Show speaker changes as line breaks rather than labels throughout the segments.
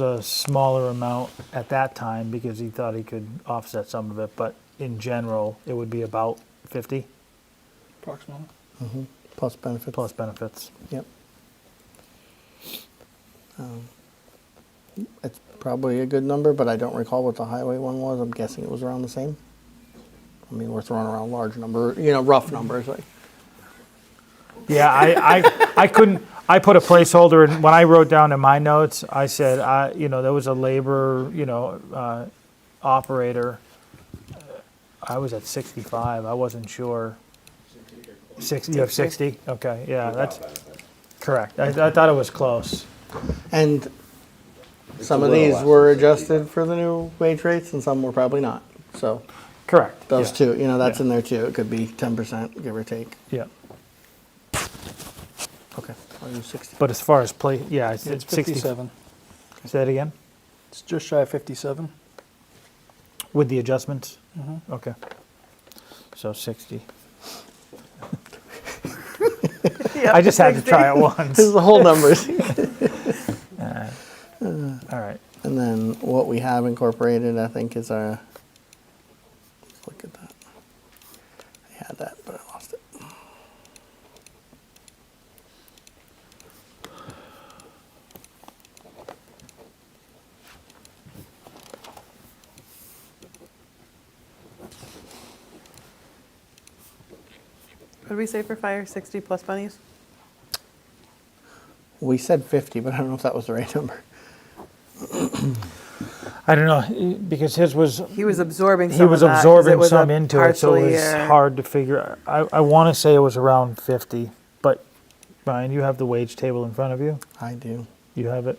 a smaller amount at that time because he thought he could offset some of it, but in general, it would be about 50
approximately.
plus benefits.
plus benefits.
Yep. Um, It's probably a good number, but I don't recall what the highway one was. I'm guessing it was around the same. I mean, we're throwing around large number, you know, rough numbers, like,
Yeah, I, I, I couldn't, I put a placeholder, and when I wrote down in my notes, I said, I, you know, there was a labor, you know, uh, operator. I was at 65, I wasn't sure. 60, you have 60? Okay, yeah, that's, correct. I, I thought it was close.
and some
a
of
little
these
less
were
than 60,
adjusted for the new wage rates and some were probably not. So
Correct.
those
yeah,
two, you know, that's
Yeah.
in there too. It could be ten percent, give or take.
Yeah.
Okay. I'll use 60.
But as far as play, yeah, it's,
It's
it's 60.
57.
Say that again?
It's just shy of 57.
With the adjustments?
Mhm.
Okay. So 60. I just had to try it once.
This is the whole numbers.
Uh,
Uh.
All right.
And then what we have incorporated, I think, is our. Let's look at that. I had that, but I lost it.
What did we say for fire? 60 plus bunnies?
We said 50, but I don't know if that was the right number.
I don't know, because his was,
He was absorbing some
Mm-hmm. he was
of that 'cause it
absorbing
was a
some into it, so it
partially,
was
uh,
hard to figure. I, I want to say it was around 50, but Brian, you have the wage table in front of you?
I do.
You have it?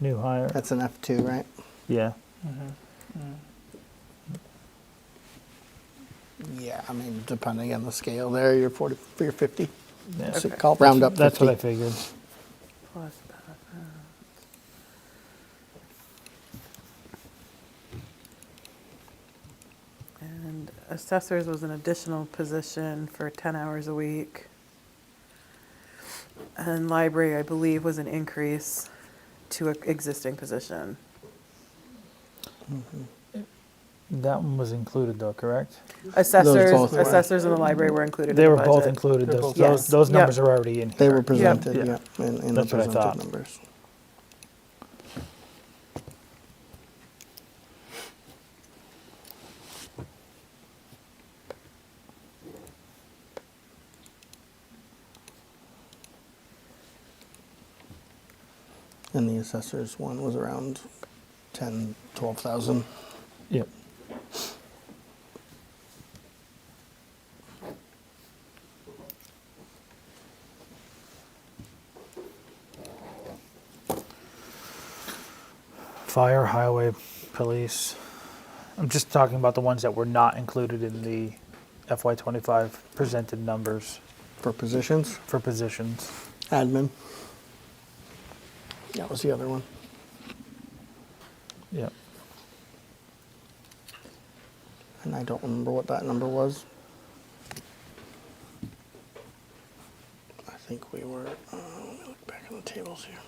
New hire?
That's an F2, right?
Yeah.
Yeah, I mean, depending on the scale there, you're 40, you're 50.
yeah.
So
Okay.
call round up 50.
That's what I figured.
plus that. And assessors was an additional position for 10 hours a week. And library, I believe, was an increase to an existing position.
That one was included though, correct?
Assessors,
both were.
assessors in the library were included in
They
the
were both
budget.
included,
They're
those,
both-
those,
Yes.
those
Yep.
numbers are already in
They
here.
were presented,
Yeah.
yeah, in, in the
That's what I thought.
presented numbers. And the assessors one was around 10, 12,000.
Yep. Fire, highway, police. I'm just talking about the ones that were not included in the FY twenty-five presented numbers
For positions,
for positions.
admin. That was the other one.
Yep.
And I don't remember what that number was. I think we were, uh, let me look back on the tables here.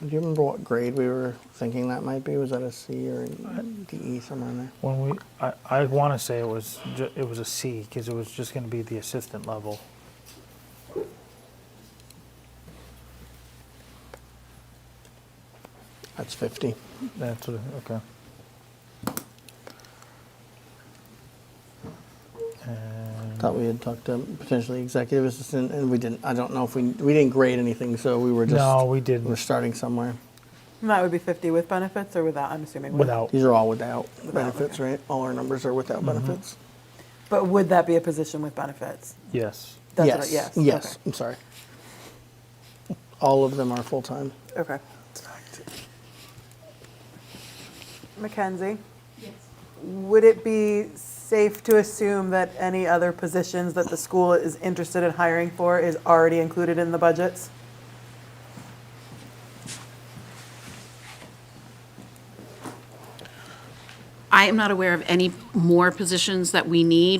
Do you remember what grade we were thinking that might be? Was that a C or a DE E, somewhere in there?
When we, I, I want to say it was, ju- it was a C, because it was just going to be the assistant level.
That's 50.
That's, what- okay. And-
Thought we had talked to potentially executive assistant and we didn't, I don't know if we, we didn't grade anything, so we were just,
No, we
we're
didn't,
starting somewhere.
And That would be 50 with benefits or without, I'm assuming. with-
without,
These are all without
Without,
benefits,
okay. Mm-hmm.
right? All our numbers are without benefits?
But would that be a position with benefits?
yes.
That's what I-
yes.
Yes.
Yes.
okay.
I'm sorry. All of them are full time.
Okay. Mackenzie? Yes. Would it be safe to assume that any other positions that the school is interested in hiring for is already included in the budgets?
I am not aware of any more positions that we need.